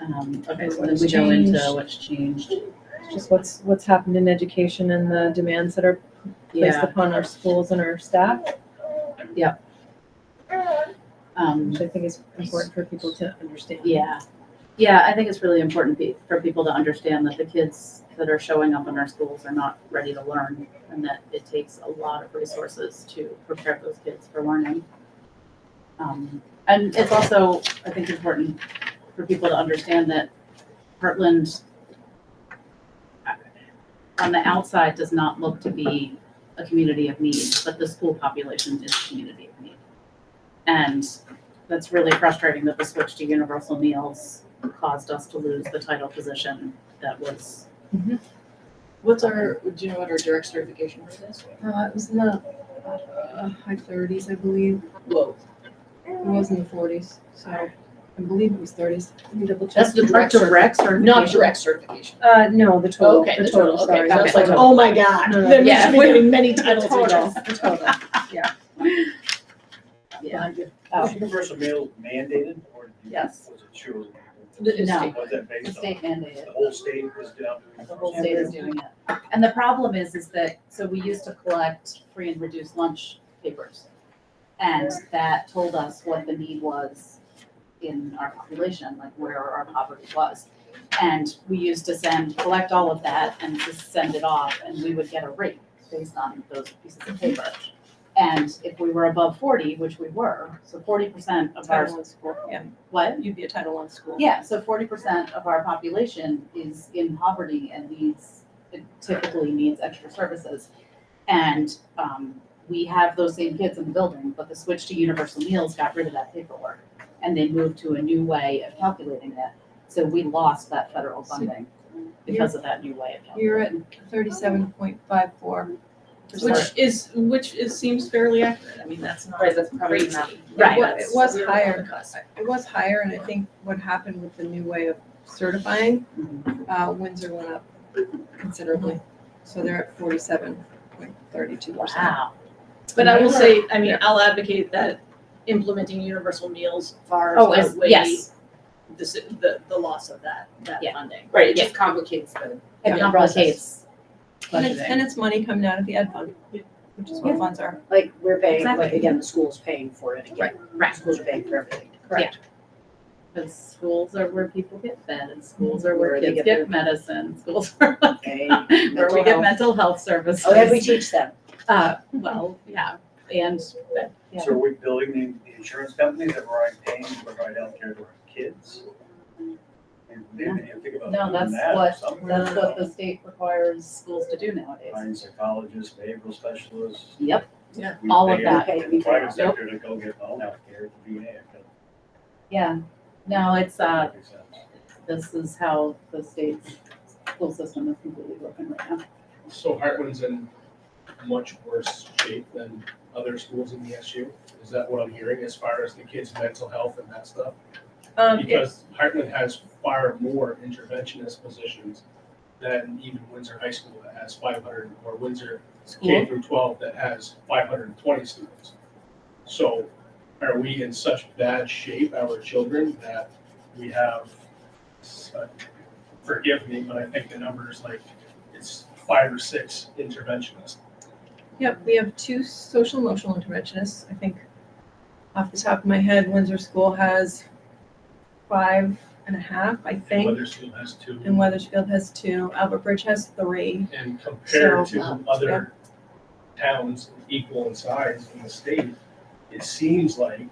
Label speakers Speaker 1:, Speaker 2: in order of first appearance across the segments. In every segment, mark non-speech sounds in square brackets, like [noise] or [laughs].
Speaker 1: Um, okay, so then
Speaker 2: What's
Speaker 1: we go into
Speaker 2: changed.
Speaker 1: what's changed.
Speaker 2: just what's, what's happened in education and the demands that are placed
Speaker 1: Yeah,
Speaker 2: upon our schools and our staff,
Speaker 1: um,
Speaker 2: which I think is important for people to understand.
Speaker 1: yeah. Yeah, I think it's really important pe- for people to understand that the kids that are showing up in our schools are not ready to learn and that it takes a lot of resources to prepare those kids for learning. Um, and it's also, I think, important for people to understand that Heartland uh, on the outside does not look to be a community of need, but the school population is a community of need. And that's really frustrating that the switch to universal meals caused us to lose the title position that was,
Speaker 3: What's our, do you know what our direct certification rate is?
Speaker 2: Uh, it was in the uh, high thirties, I believe.
Speaker 3: Low.
Speaker 2: It was in the forties, so I believe it was thirties. Let me double check.
Speaker 1: that's the
Speaker 3: direct
Speaker 1: direct certification.
Speaker 3: Not direct certification.
Speaker 2: Uh, no, the total,
Speaker 3: Okay,
Speaker 2: the
Speaker 3: the total,
Speaker 2: total,
Speaker 3: okay,
Speaker 2: sorry.
Speaker 3: that
Speaker 2: the
Speaker 3: was like,
Speaker 2: total.
Speaker 3: oh my god,
Speaker 2: No, no,
Speaker 3: there
Speaker 2: yeah,
Speaker 3: must be
Speaker 2: we-
Speaker 3: getting many titles
Speaker 2: The
Speaker 3: we
Speaker 2: total,
Speaker 3: got.
Speaker 2: the total, yeah.
Speaker 1: Yeah.
Speaker 2: Oh.
Speaker 4: Was universal meal mandated or? did you-
Speaker 1: Yes.
Speaker 4: Was it true?
Speaker 3: The-
Speaker 1: No.
Speaker 4: Was that based on,
Speaker 1: State mandated.
Speaker 4: the whole state was down? to
Speaker 3: The whole
Speaker 4: universal?
Speaker 3: state is
Speaker 1: Everyone's doing it. And the problem is, is that, so we used to collect free and reduced lunch papers. And that told us what the need was in our population, like where our poverty was. And we used to send, collect all of that and just send it off, and we would get a rate based on those pieces of paper. And if we were above forty, which we were, so forty percent of our,
Speaker 2: Title one school, yeah.
Speaker 1: what?
Speaker 2: You'd be a Title one school.
Speaker 1: Yeah, so forty percent of our population is in poverty and needs, typically needs extra services. And, um, we have those same kids in the building, but the switch to universal meals got rid of that paperwork. And they moved to a new way of calculating it, so we lost that federal funding because of that new way of calculating.
Speaker 2: You're at thirty-seven point five four.
Speaker 5: Which is, which is, seems fairly accurate, I mean, that's not
Speaker 1: Right,
Speaker 5: crazy.
Speaker 1: that's probably not-
Speaker 2: Right.
Speaker 5: But
Speaker 2: It was
Speaker 5: we're
Speaker 2: higher.
Speaker 5: on the cusp.
Speaker 2: It was higher, and I think what happened with the new way of certifying, uh, Windsor went up considerably. So they're at forty-seven point thirty-two percent.
Speaker 1: Wow,
Speaker 5: But I will say, I mean, I'll advocate that implementing universal meals far
Speaker 1: Oh, as- yes.
Speaker 5: outweighs the, s- the, the loss of that, that
Speaker 1: Yeah.
Speaker 5: funding.
Speaker 3: Right, it just complicates the.
Speaker 1: it
Speaker 5: Yeah.
Speaker 1: complicates
Speaker 2: And it's,
Speaker 1: budgeting.
Speaker 2: and it's money coming out of the ed fund, which is what funds are.
Speaker 3: Like, we're paying, like,
Speaker 1: Exactly.
Speaker 3: again, the school's paying for it again.
Speaker 1: right.
Speaker 3: Schools are paying for everything.
Speaker 1: Because schools are where people get fed, and schools are where
Speaker 3: Where they
Speaker 1: kids
Speaker 3: get
Speaker 1: get
Speaker 3: their-
Speaker 1: medicine,
Speaker 3: [laughs]
Speaker 1: schools are
Speaker 3: Okay.
Speaker 1: where we
Speaker 3: Mental
Speaker 1: get
Speaker 3: health.
Speaker 1: mental health services.
Speaker 3: Oh, yeah, we teach them.
Speaker 1: Uh, well, yeah, and, but, yeah.
Speaker 4: So are we building the, the insurance companies that we're already paying to provide healthcare to our kids? And then you think about
Speaker 1: No,
Speaker 4: doing
Speaker 1: that's
Speaker 4: that or
Speaker 1: what,
Speaker 4: something.
Speaker 1: that's what the state requires schools to do nowadays.
Speaker 4: Find psychologists, behavioral specialists.
Speaker 1: Yep,
Speaker 5: Yeah.
Speaker 4: We
Speaker 1: All of
Speaker 4: pay
Speaker 1: that.
Speaker 4: in the private
Speaker 1: Yep.
Speaker 4: sector to go get the home healthcare, to be there.
Speaker 1: yeah. No, it's, uh, this is how the state's school system is completely broken right now.
Speaker 6: So Hartland's in much worse shape than other schools in the SU? Is that what I'm hearing as far as the kids' mental health and that stuff?
Speaker 2: Um, it-
Speaker 6: Because Hartland has far more interventionist positions than even Windsor High School that has five hundred, or Windsor K through twelve that has five hundred and twenty students. So are we in such bad shape, our children, that we have, s- uh, forgive me, but I think the number is like, it's five or six interventionists.
Speaker 2: Yep, we have two social emotional interventionists. I think off the top of my head, Windsor School has five and a half, I think.
Speaker 6: Weathersfield has two.
Speaker 2: And Weathersfield has two, Albert Bridge has three.
Speaker 6: And compared
Speaker 2: So,
Speaker 6: to other towns equal in size in the state, it seems like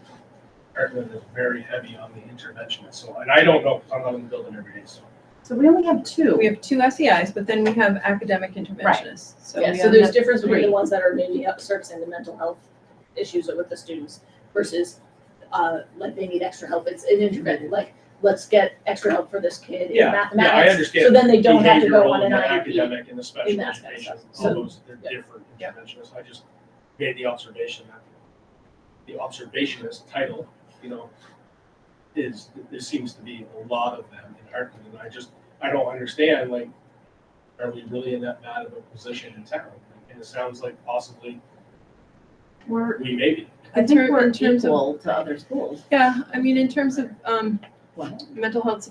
Speaker 6: Heartland is very heavy on the interventionist. So, and I don't know, I'm not in the building every day, so.
Speaker 1: So we only have
Speaker 2: We
Speaker 1: two.
Speaker 2: have two SEIs, but then we have academic interventionists. So
Speaker 5: Yeah,
Speaker 2: we
Speaker 5: so
Speaker 2: have
Speaker 5: there's
Speaker 2: that-
Speaker 5: difference between the
Speaker 1: three.
Speaker 5: ones that are maybe up servicing the mental health issues with the students versus, uh, like they need extra help, it's an intervention, like, let's get extra help for this kid in
Speaker 6: Yeah, Yeah, I
Speaker 5: mathematics. So
Speaker 6: understand.
Speaker 5: then they don't have to go
Speaker 6: behavioral
Speaker 5: on an
Speaker 6: and the
Speaker 5: IEP.
Speaker 6: Academic and the special
Speaker 5: that kind of
Speaker 6: education,
Speaker 5: stuff.
Speaker 6: all
Speaker 5: So-
Speaker 6: those, they're
Speaker 5: yeah.
Speaker 6: different interventionists. I just made the observation that the observationist title, you know, is, there seems to be a lot of them in Heartland. And I just, I don't understand, like, are we really in that bad of a position in town? And it sounds like possibly
Speaker 1: We're,
Speaker 6: we may be.
Speaker 1: I
Speaker 2: In
Speaker 1: think
Speaker 2: ter-
Speaker 1: we're
Speaker 2: in terms of-
Speaker 1: equal to other schools.
Speaker 2: Yeah, I mean, in terms of um,
Speaker 1: What?
Speaker 2: mental health